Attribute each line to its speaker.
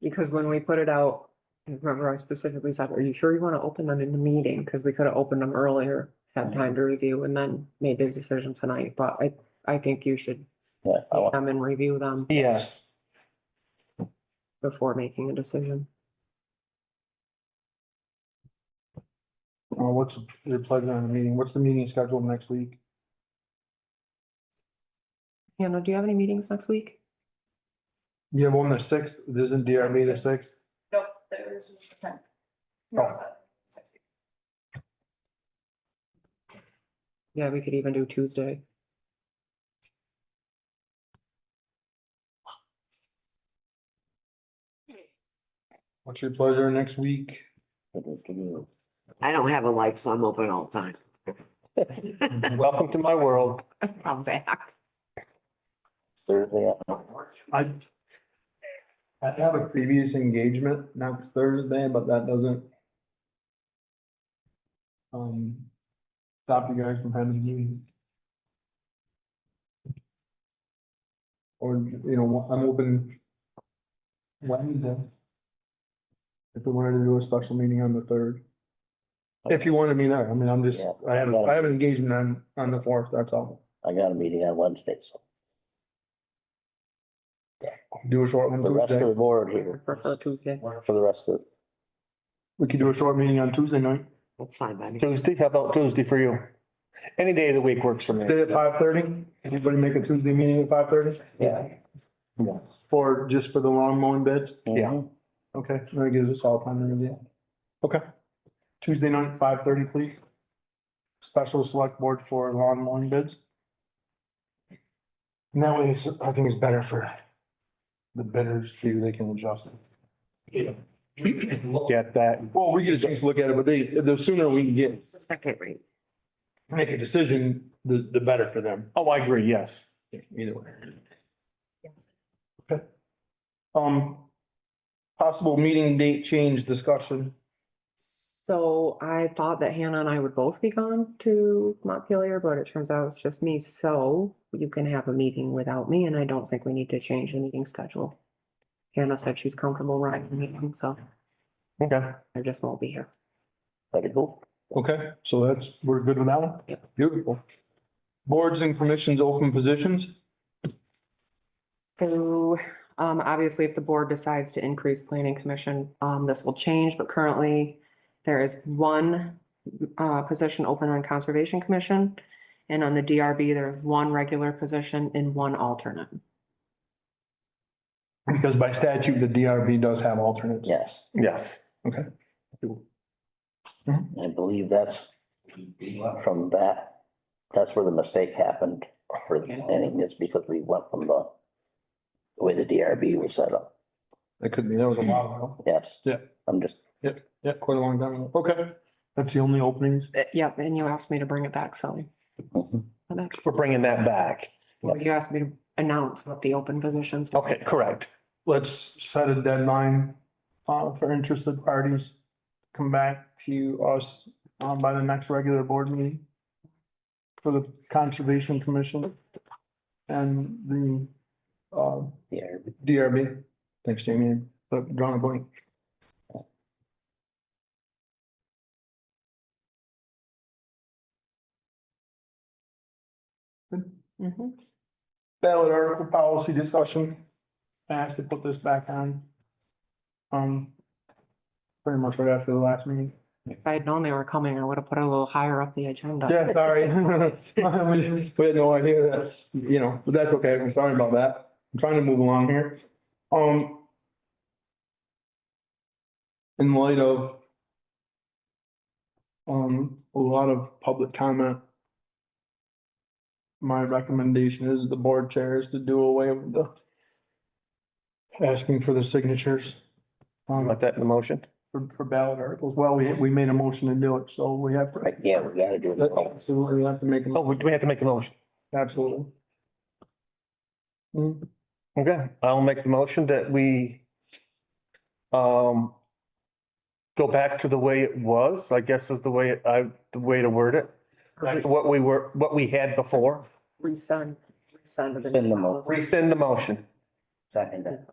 Speaker 1: Because when we put it out, I remember I specifically said, are you sure you want to open them in the meeting? Because we could have opened them earlier, had time to review and then made the decision tonight, but I, I think you should
Speaker 2: Yeah, I
Speaker 1: take
Speaker 2: want,
Speaker 1: them and review them
Speaker 3: Yes.
Speaker 1: before making a decision.
Speaker 4: Uh, what's your pleasure on the meeting? What's the meeting scheduled next week?
Speaker 1: Hannah, do you have any meetings next week?
Speaker 4: You have one the sixth, isn't DRB the sixth?
Speaker 5: Nope, there is a tenth. No,
Speaker 4: Oh.
Speaker 5: seven, six.
Speaker 1: Yeah, we could even do Tuesday.
Speaker 4: What's your pleasure next week?
Speaker 6: I don't have a life, so I'm open all the time.
Speaker 3: Welcome to my world.
Speaker 6: I'm back.
Speaker 2: Thursday, uh,
Speaker 4: I. I have a previous engagement next Thursday, but that doesn't. Um. Stop you guys from having a meeting. Or, you know, I'm open. Wednesday. If we wanted to do a special meeting on the third. If you wanted me there, I mean, I'm just,
Speaker 2: Yeah.
Speaker 4: I have, I have an engagement on, on the fourth, that's all.
Speaker 2: I got a meeting on Wednesday, so
Speaker 4: Do a short one
Speaker 2: the rest of
Speaker 4: Tuesday.
Speaker 2: the board
Speaker 1: I
Speaker 2: here,
Speaker 1: Prefer Tuesday.
Speaker 2: for the rest of,
Speaker 4: We could do a short meeting on Tuesday night.
Speaker 6: That's fine by me.
Speaker 3: Tuesday, how about Tuesday for you? Any day of the week works for me.
Speaker 4: Did at five thirty? Anybody make a Tuesday meeting at five thirty?
Speaker 3: Yeah.
Speaker 4: For, just for the lawn mowing bids?
Speaker 3: Yeah.
Speaker 4: Okay, so that gives us all time to review. Okay. Tuesday night, five thirty, please. Special select board for lawn mowing bids. And that way, it's- I think it's better for the bidders, see they can adjust it.
Speaker 3: Look at that.
Speaker 4: Well, we get a chance to look at it, but they, the sooner we can get,
Speaker 6: It's the second read.
Speaker 4: make a decision, the, the better for them.
Speaker 3: Oh, I agree, yes.
Speaker 4: Either way. Okay. Um, possible meeting date change discussion.
Speaker 1: So I thought that Hannah and I would both be gone to Montpelier, but it turns out it's just me, so you can have a meeting without me, and I don't think we need to change the meeting schedule. Hannah said she's comfortable running the meeting, so
Speaker 3: Okay.
Speaker 1: I just won't be here.
Speaker 2: that it go?
Speaker 4: Okay, so that's, we're good with that one? Beautiful. Boards and commissions open positions?
Speaker 1: So, um, obviously, if the board decides to increase planning commission, um, this will change, but currently there is one, uh, position open on conservation commission. And on the DRB, there is one regular position and one alternate.
Speaker 4: Because by statute, the DRB does have alternates.
Speaker 2: Yes,
Speaker 3: Yes.
Speaker 2: I believe that's from that, that's where the mistake happened for the planning, is because we went from the the way the DRB was set up,
Speaker 4: That could be, that was a while ago.
Speaker 2: yes.
Speaker 4: Yeah.
Speaker 2: I'm just,
Speaker 4: Yeah, quite a long time ago. Okay, that's the only openings.
Speaker 1: Uh, Yep, and you asked me to bring it back, so
Speaker 2: mhm.
Speaker 3: We're bringing that back.
Speaker 1: you asked me to announce what the open positions. were.
Speaker 3: Okay, correct.
Speaker 4: let's set a deadline uh for interested parties. Come back to us um by the next regular board meeting. For the Conservation Commission and the uh
Speaker 2: DRB.
Speaker 4: DRB. Thanks, Jamie, but drawing a blank.
Speaker 1: Mhm.
Speaker 4: ballot article policy discussion. I asked to put this back on. Um. Pretty much right after the last meeting.
Speaker 1: If I had known they were coming, I would have put it a little higher up the agenda.
Speaker 4: Yeah, sorry. We we had no idea that, you know, but that's okay. I'm sorry about that. I'm trying to move along here. Um. In light of. Um, a lot of public comment. My recommendation is the board chair is to do away with the. Asking for the signatures. um,
Speaker 3: About that in the motion.
Speaker 4: for, for ballot articles. Well, we, we made a motion to do it, so we have. to-
Speaker 2: Right, yeah, we gotta do
Speaker 4: that-
Speaker 3: Uh,
Speaker 2: it.
Speaker 4: Absolutely, we have to make, a-
Speaker 3: Oh, we do we have to make the motion.
Speaker 4: absolutely. Mm,
Speaker 3: Okay, I'll make the motion that we um go back to the way it was, I guess is the way I, the way to word it. Back to what we were, what we had before.
Speaker 1: Resend, resend. of the
Speaker 2: Resend them all.
Speaker 1: policy.
Speaker 3: Rescind the motion.
Speaker 2: Second,